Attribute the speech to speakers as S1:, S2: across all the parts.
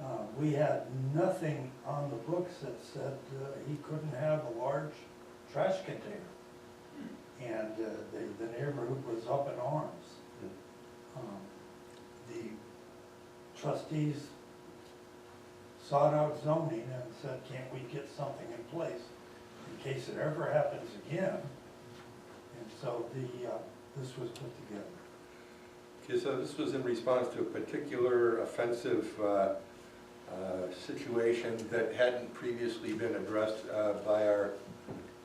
S1: Uh, we had nothing on the books that said uh, he couldn't have a large trash container. And uh, the, the neighborhood was up in arms. Um, The trustees sought out zoning and said, can't we get something in place in case it ever happens again? And so the, uh, this was put together.
S2: Okay, so this was in response to a particular offensive uh, uh, situation that hadn't previously been addressed uh, by our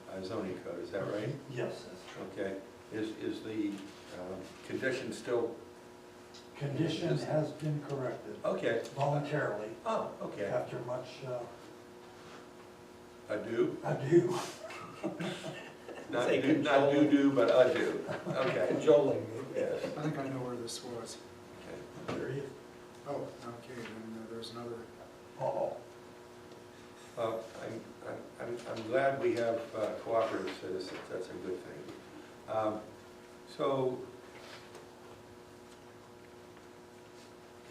S2: uh, zoning code, is that right?
S1: Yes, that's true.
S2: Okay, is, is the um, condition still,
S1: Condition has been corrected
S2: okay,
S1: voluntarily
S2: oh, okay,
S1: after much uh,
S2: ado?
S1: ado.
S2: Not
S3: Say
S2: do, not
S3: control.
S2: do-do, but ado, okay,
S3: cajoling
S2: yes,
S4: I think I know where this was.
S2: okay.
S1: There you-
S4: Oh, okay, then uh, there's another,
S1: Uh-oh.
S2: Well, I'm, I'm- I'm, I'm glad we have uh, cooperative citizens, that's a good thing. Um, So,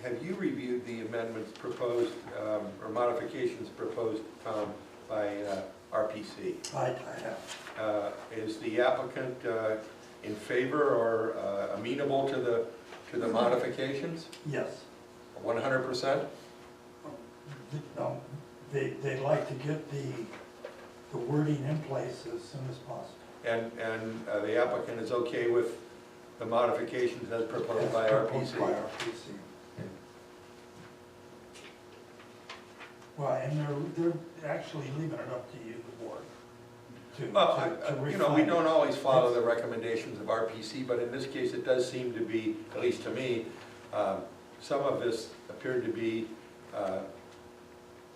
S2: have you reviewed the amendments proposed, um, or modifications proposed, Tom, by uh, RPC?
S1: I, I have.
S2: Uh, Is the applicant uh, in favor or uh, amenable to the, to the modifications?
S1: Yes.
S2: One hundred percent?
S1: Um, They, they'd like to get the, the wording in place as soon as possible.
S2: And, and uh, the applicant is okay with the modifications as proposed by
S1: Proposed by
S2: RPC?
S1: RPC. Well, and they're, they're actually leaving it up to you, the board, to,
S2: Well, I-
S1: to- to
S2: I-
S1: refine.
S2: you know, we don't
S1: it.
S2: always follow the recommendations of RPC, but in this case, it does seem to be, at least to me, um, some of this appeared to be uh,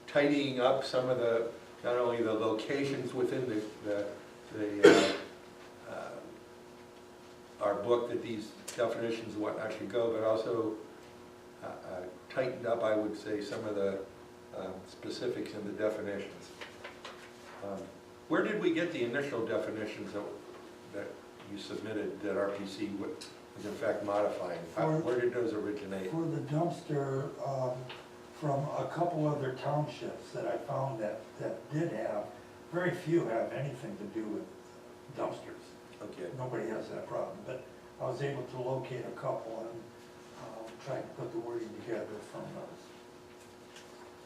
S2: tidying up some of the, not only the locations within the, the- the, uh, uh, our book that these definitions and whatnot should go, but also uh, uh, tightened up, I would say, some of the um, specifics in the definitions. Um, Where did we get the initial definitions that, that you submitted that RPC wa- was in fact modifying? How-
S1: For-
S2: Where did those originate?
S1: For the dumpster, um, from a couple other townships that I found that, that did have, very few have anything to do with dumpsters.
S2: Okay,
S1: Nobody has that problem, but I was able to locate a couple and um, try to put the wording together from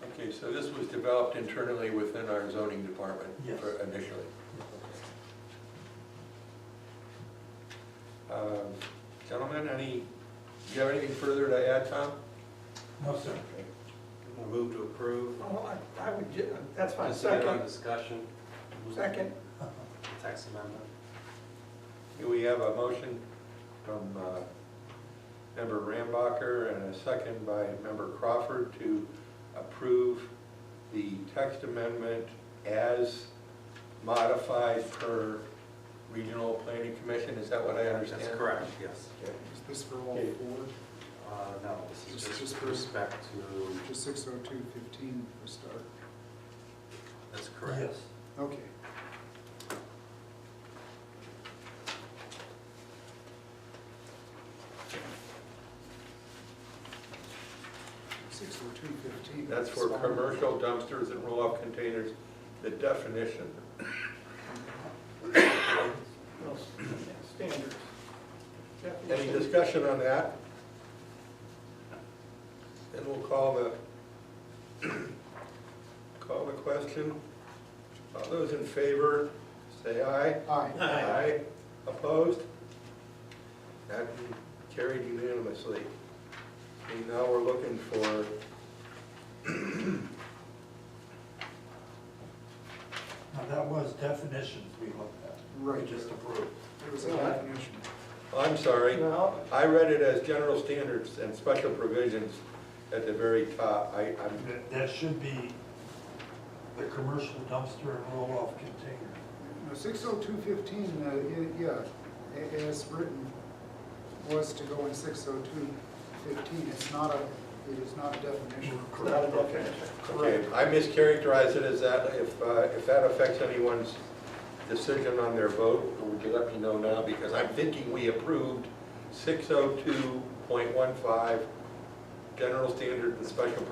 S1: those.
S2: okay, so this was developed internally within our zoning department
S1: Yes.
S2: for- initially? Um, Gentlemen, any, do you have anything further to add, Tom?
S1: No, sir.
S5: Move to approve.
S3: Well, Oh, I, I would, ju- that's my
S5: Consider on
S3: second,
S5: Discussion.
S3: second.
S5: Text amendment.
S2: Here we have a motion from uh, member Rambacher and a second by member Crawford to approve the text amendment as modified per regional planning commission. Is that what I understand?
S5: That's correct, yes.
S2: Okay.
S4: is this for all
S2: Okay.
S4: four?
S5: Uh, no, this
S4: Just-
S5: is
S4: just
S5: just
S4: for-
S5: with respect to,
S4: Just six oh two fifteen for start.
S1: Yes.
S5: that's correct.
S4: Okay, six oh two fifteen.
S2: That's for commercial dumpsters and roll-off containers, the definition.
S3: Standards.
S2: Any discussion on that? Then we'll call the, call the question. All those in favor, say aye.
S4: Aye.
S2: Aye. Opposed? That carried unanimously. And now we're looking for
S1: Now, that was definitions we looked at.
S4: Right.
S1: We just approved.
S4: It was a definition.
S2: I'm sorry,
S3: No.
S2: I read it as general standards and special provisions at the very top. I, I'm,
S1: That- That should be the commercial dumpster and roll-off container.
S4: No, six oh two fifteen, uh, i- yeah, a- as written, was to go in six oh two fifteen. It's not a, it is not a definition.
S3: Not a definition.
S2: okay, I mischaracterized it as that. If, uh, if that affects anyone's decision on their vote, would you let me know now? Because I'm thinking we approved six oh two point one five, general standard and special